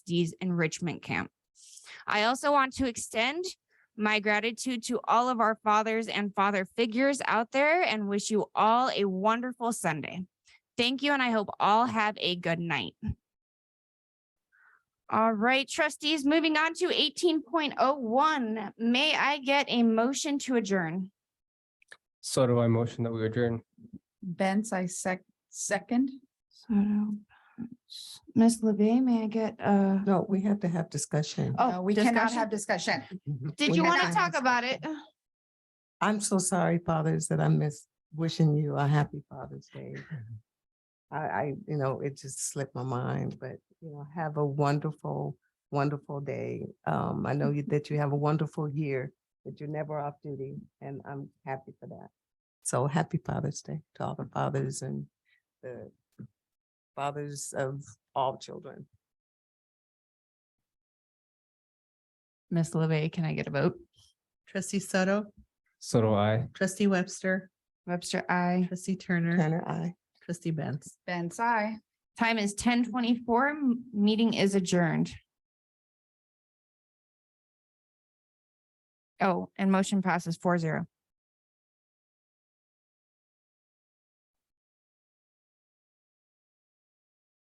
trustees enrichment camp. I also want to extend my gratitude to all of our fathers and father figures out there and wish you all a wonderful Sunday. Thank you, and I hope all have a good night. All right, trustees, moving on to eighteen point oh one, may I get a motion to adjourn? So do I motion that we adjourn. Benz, I sec- second. Ms. LeVey, may I get uh? No, we have to have discussion. Mm-hmm. Oh, No, Uh, we cannot discussion? have discussion. Did we you have want to to talk have about it? I'm so sorry, fathers, that I miss wishing you a happy Father's Day. I, I, you know, it just slipped my mind, but, you know, have a wonderful, wonderful day. Um, I know you- Mm-hmm. that you have a wonderful year, that you're never off duty, and I'm happy for that. So happy Father's Day to all the fathers and the fathers of all children. Ms. LeVey, can I get a vote? Trustee Soto, So do I. trustee Webster, Webster, I. trustee Mm-hmm. Turner, Turner, I. trustee Benz. Benz, I. Time is ten twenty-four. Meeting is adjourned. Oh, and motion passes four zero.